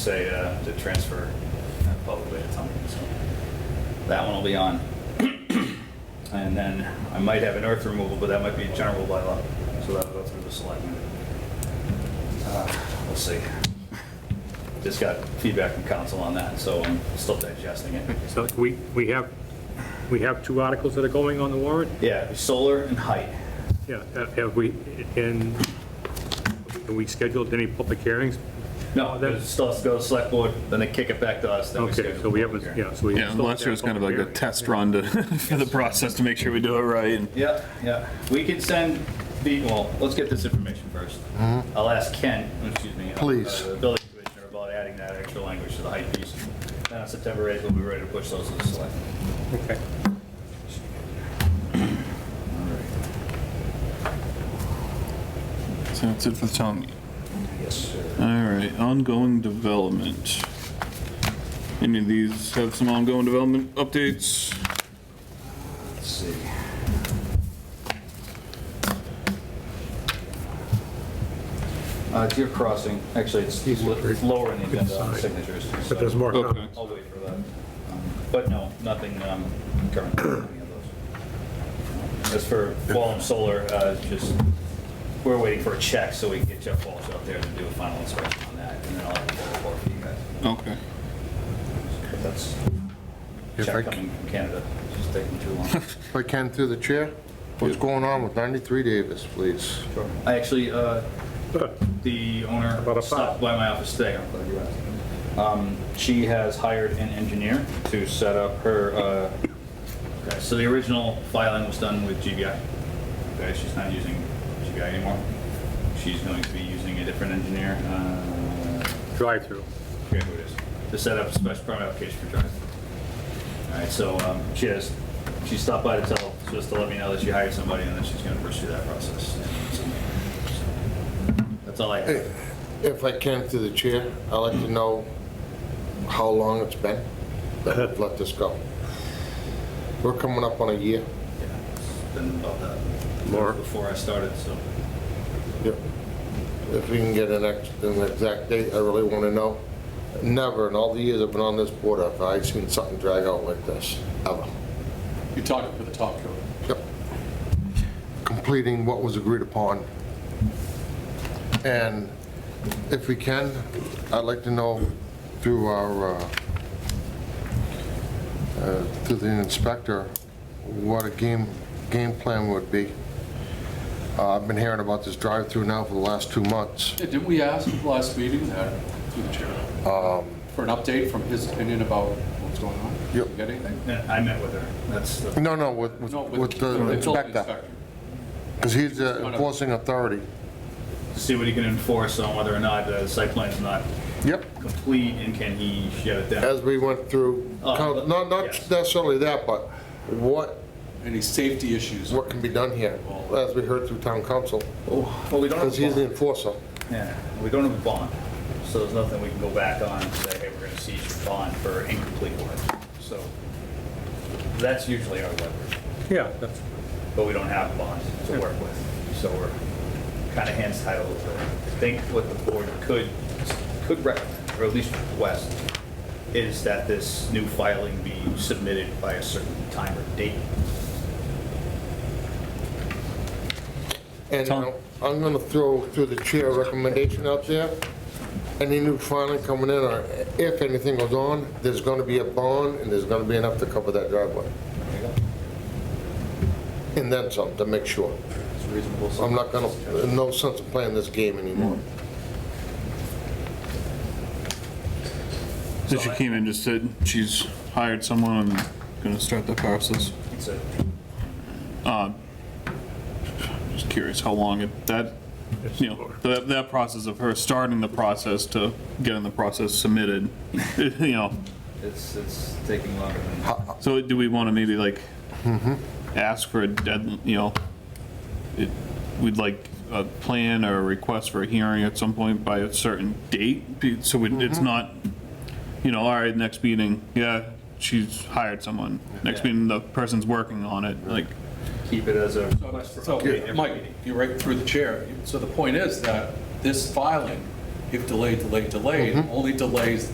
say uh, to transfer uh, publicly at something. So that one will be on. And then I might have an earth removal, but that might be a general bylaw, so that'll go through the selectmen. Uh, We'll see. Just got feedback from council on that, so I'm still digesting it. So we, we have, we have two articles that are going on the warrant? Yeah, solar and height. Yeah, uh, have we, and, and we scheduled any public hearings? No, it still has to go to select board, then they kick it back to us, then we Okay, schedule. so we a public haven't, hearing. yeah, so we. Yeah, last year was kind of like a test run to, for the process to make sure we do it right. and- Yeah, yeah. We can send the, well, let's get this information first. I'll ask Ken, excuse me. uh, Please. The building commissioner about adding that extra language to the height piece. Then on September 8th, we'll be ready to push those to the select. Okay. So that's it for the town. Yes, sir. All right, ongoing development. Any of these have some ongoing development updates? Let's see. Uh, Deer Crossing, actually, it's lo- it's lower in the agenda on signatures. so- But there's more Okay. comments. I'll wait for that. Um, But no, nothing um, current, on any of those. As for Wallem Solar, uh, just, we're waiting for a check so we can get Jeff Walsh out there to do a final inspection on that, and then I'll have a full report for you guys. Okay. But that's, If I check c- coming from Canada, it's just taking too long. If I can, through the chair, what's going on with 93 Davis, please? Sure. I actually, uh, Good. the owner About a stopped five. by my office today. I'm glad you asked. Um, She has hired an engineer to set up her, uh, okay, so the original filing was done with GBI. Okay, she's not using GBI anymore. She's going to be using a different engineer. uh, Drive-through. forget who it is, to set up a special permit application for drive. All right, so um, she has, she stopped by to tell, just to let me know that she hired somebody, and then she's gonna pursue that process. That's all I have. If I can, through the chair, I'd like to know how long it's been that we've let this go. We're coming up on a year. Yeah, it's Been about that. Laura? Before I started, so. Yep. If we can get an ex, an exact date, I really want to know. Never in all the years I've been on this board have I seen something drag out like this, ever. You're talking for the top coat. Yep. Completing what was agreed upon. And if we can, I'd like to know through our, uh, uh, through the inspector, what a game, game plan would be. Uh, I've been hearing about this drive-through now for the last two months. Yeah, Didn't we ask at the last meeting that, through the chair, Um, for an update from his opinion about what's going on? Yep. You Got anything? And I met with her, that's the. No, no, with, with No, with building the inspector, because he's the enforcing authority. See what he can enforce on whether or not the site plan's not Yep. complete, and can he shut it down? As we went through, Oh, count- not, not yes. necessarily that, but what Any safety issues? what can be done here, as we heard through town council, Oh, Well, we don't have because a he's the bond. enforcer. Yeah, we don't have a bond, so there's nothing we can go back on and say, hey, we're gonna seize your bond for incomplete work. So that's usually our leverage, Yeah, that's, but we don't have a bond to work with. So we're kind of hands tied a little bit. I think what the board could, could recommend, or at least request, is that this new filing be submitted by a certain time or date. And Tom? uh, I'm gonna throw through the chair a recommendation out there. Any new filing coming in, or if anything goes on, there's gonna be a bond, and there's gonna be enough to cover that driveway. And then some, to make sure. It's reasonable. I'm not gonna, no sense of playing this game anymore. So she came in, just said she's hired someone and gonna start the process. It's a- Just curious how long it, that, you know, that, that process of her starting the process to getting the process submitted, you know, It's, it's taking longer than. So do we want to maybe like ask for a dead, you know, it, we'd like a plan or a request for a hearing at some point by a certain date? be- So we- it's not, you know, all right, next meeting, yeah, she's hired someone. Next Yeah. meeting, the person's working on it, like, Keep it as a request for So, update every Mike, meeting. you're right through the chair. So the point is that this filing Mm-hmm. if delayed, delayed, delayed, only delays